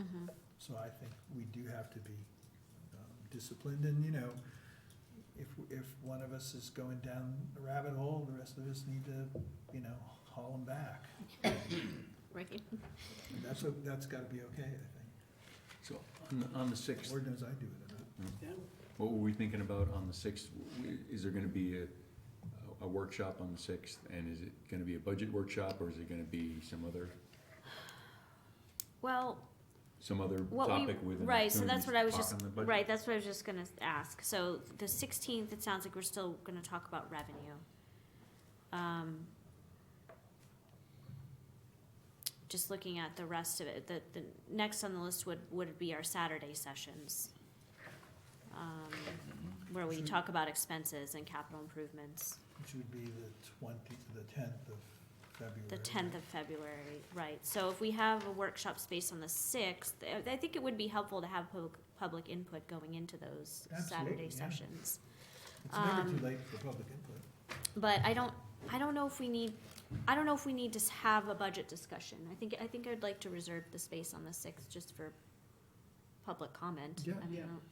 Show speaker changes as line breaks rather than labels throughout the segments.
Mm-hmm.
So I think we do have to be um, disciplined and, you know, if, if one of us is going down the rabbit hole, the rest of us need to, you know, haul them back.
Right?
And That's, what- that's gotta be okay, I think.
So on the, on the sixth,
Lord knows I do it. uh, enough.
what were we thinking about on the sixth? Is there gonna be a, a workshop on the sixth? And is it gonna be a budget workshop or is it gonna be some other,
Well,
some other
what we,
topic with an
right, so that's what I
opportunity
was
to
just,
talk on the budget?
right, that's what I was just gonna ask. So the sixteenth, it sounds like we're still gonna talk about revenue. Um, Just looking at the rest of it, the, the, next on the list would, would be our Saturday sessions. um, Where we
Should-
talk about expenses and capital improvements.
Which would be the twenty, the tenth of February.
The tenth of February, right, so if we have a workshop space on the sixth, I I think it would be helpful to have public, public input going into those
Absolutely, yeah.
Saturday sessions.
It's never
um,
too late for public input.
But I don't, I don't know if we need, I don't know if we need to s- have a budget discussion, I think, I think I'd like to reserve the space on the sixth just for public comment.
Yeah.
I mean, I
Yeah.
don't-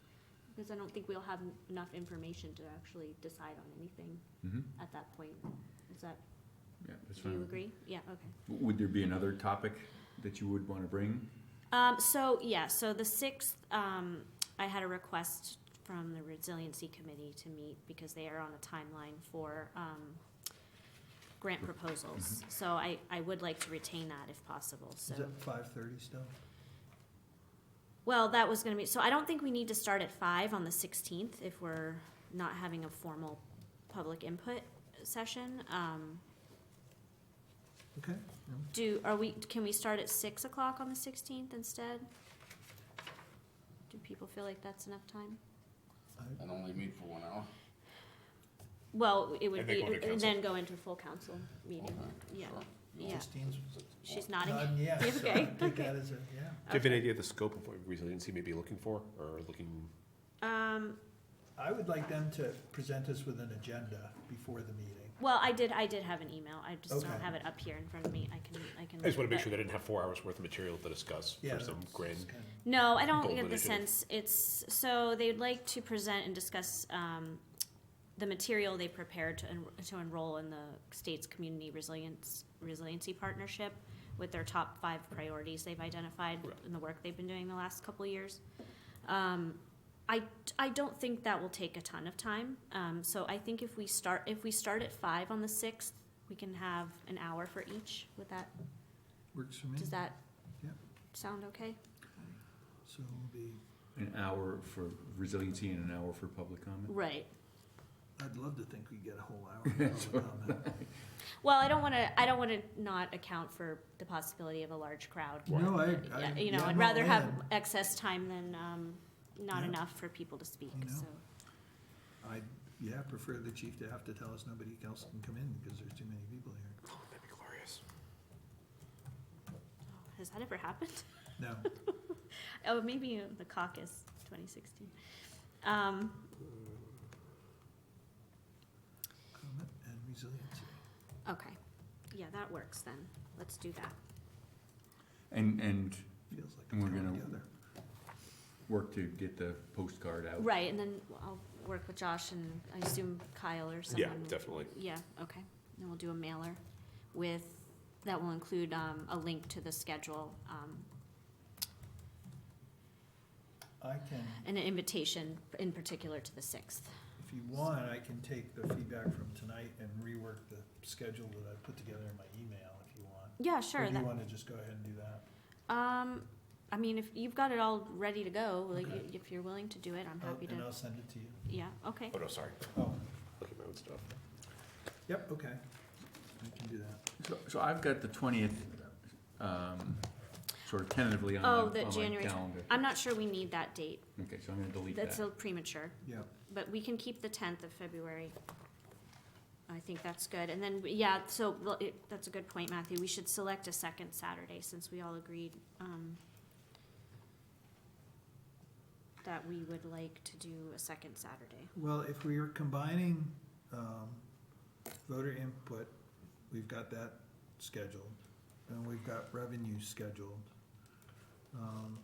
Because I don't think we'll have enough information to actually decide on anything
Mhm.
at that point, is that,
Yeah, that's
do you
fine.
agree? Yeah, okay.
W- Would there be another topic that you would wanna bring?
Um, so, yeah, so the sixth, um, I had a request from the resiliency committee to meet because they are on a timeline for, um, grant proposals. So I, I would like to retain that if possible,
Mm-hmm. Is
so.
that five thirty still?
Well, that was gonna be, so I don't think we need to start at five on the sixteenth if we're not having a formal public input session. Um,
Okay,
do, are we, can we start at six o'clock on the sixteenth instead? Do people feel like that's enough time?
I-
And only meet for one hour?
Well, it would
And then
be,
go into
and then go into full council meeting,
Okay,
yeah.
sure.
Yeah.
Christine's
She's nodding.
nodding, yeah, so I
Okay,
take
okay.
that as a, yeah.
Do you have an
Okay.
idea of the scope of what resiliency may be looking for, or looking,
Um,
I would like them to present us with an agenda before the meeting.
well, I did, I did have an email. I just don't
Okay.
have it up here in front of me. I can, I can.
I just wanna make
but-
sure they didn't have four hours worth of material to discuss
Yeah,
for some
that's
grand.
kind of-
No, I don't
Bold
get the
initiative.
sense, it's, so they'd like to present and discuss, um, the material they prepared to, en- to enroll in the state's community resilience, resiliency partnership with their top five priorities they've identified
Right.
in the work they've been doing the last couple of years. Um, I, I don't think that will take a ton of time, um, so I think if we start, if we start at five on the sixth, we can have an hour for each, would that,
Works for me.
does that
Yep.
sound okay?
So it'll be,
An hour for resiliency and an hour for public comment?
Right,
I'd love to think we'd get a whole hour of public comment.
Well, I don't want to. I don't want to not account for the possibility of a large crowd.
No, I,
Yeah,
I.
you know,
yeah,
I'd
I'm
rather
all
have
in.
excess time than um, not
Yeah.
enough for people to speak.
I know.
So
I, yeah, prefer the chief to have to tell us nobody else can come in because there's too many people here.
That'd be glorious.
has that ever happened?
No,
Oh, maybe in the caucus, 2016. Um,
comment and resiliency.
okay, yeah, that works then. Let's do that.
And, and
Feels like
And
it's
we're
coming
gonna-
together.
work to get the postcard out.
Right, and then I'll work with Josh and I assume Kyle or someone.
Yeah,
will-
definitely.
Yeah, okay. Then we'll do a mailer with, that will include um, a link to the schedule, um,
I can,
and an invitation in particular to the sixth.
if you want, I can take the feedback from tonight and rework the schedule that I put together in my email if you want.
Yeah, sure.
Or do you
that-
want to just go ahead and do that?
um, I mean, if you've got it all ready to go, like
Okay.
if you're willing to do it, I'm
Oh,
happy
And I'll
to.
send it to you.
Yeah, okay.
Oh, no, sorry,
Oh,
look at my own stuff.
yep, okay. I can do that.
So, so I've got the twentieth, um, sort of tentatively on
Oh,
my,
the
on my
January.
calendar.
I'm not sure we need that date.
Okay, so I'm gonna delete that.
That's a premature,
Yep.
but we can keep the tenth of February. I think that's good. And then, yeah, so well, it, that's a good point, Matthew. We should select a second Saturday since we all agreed, um, that we would like to do a second Saturday.
Well, if we are combining um, voter input, we've got that scheduled, and we've got revenue scheduled. Um,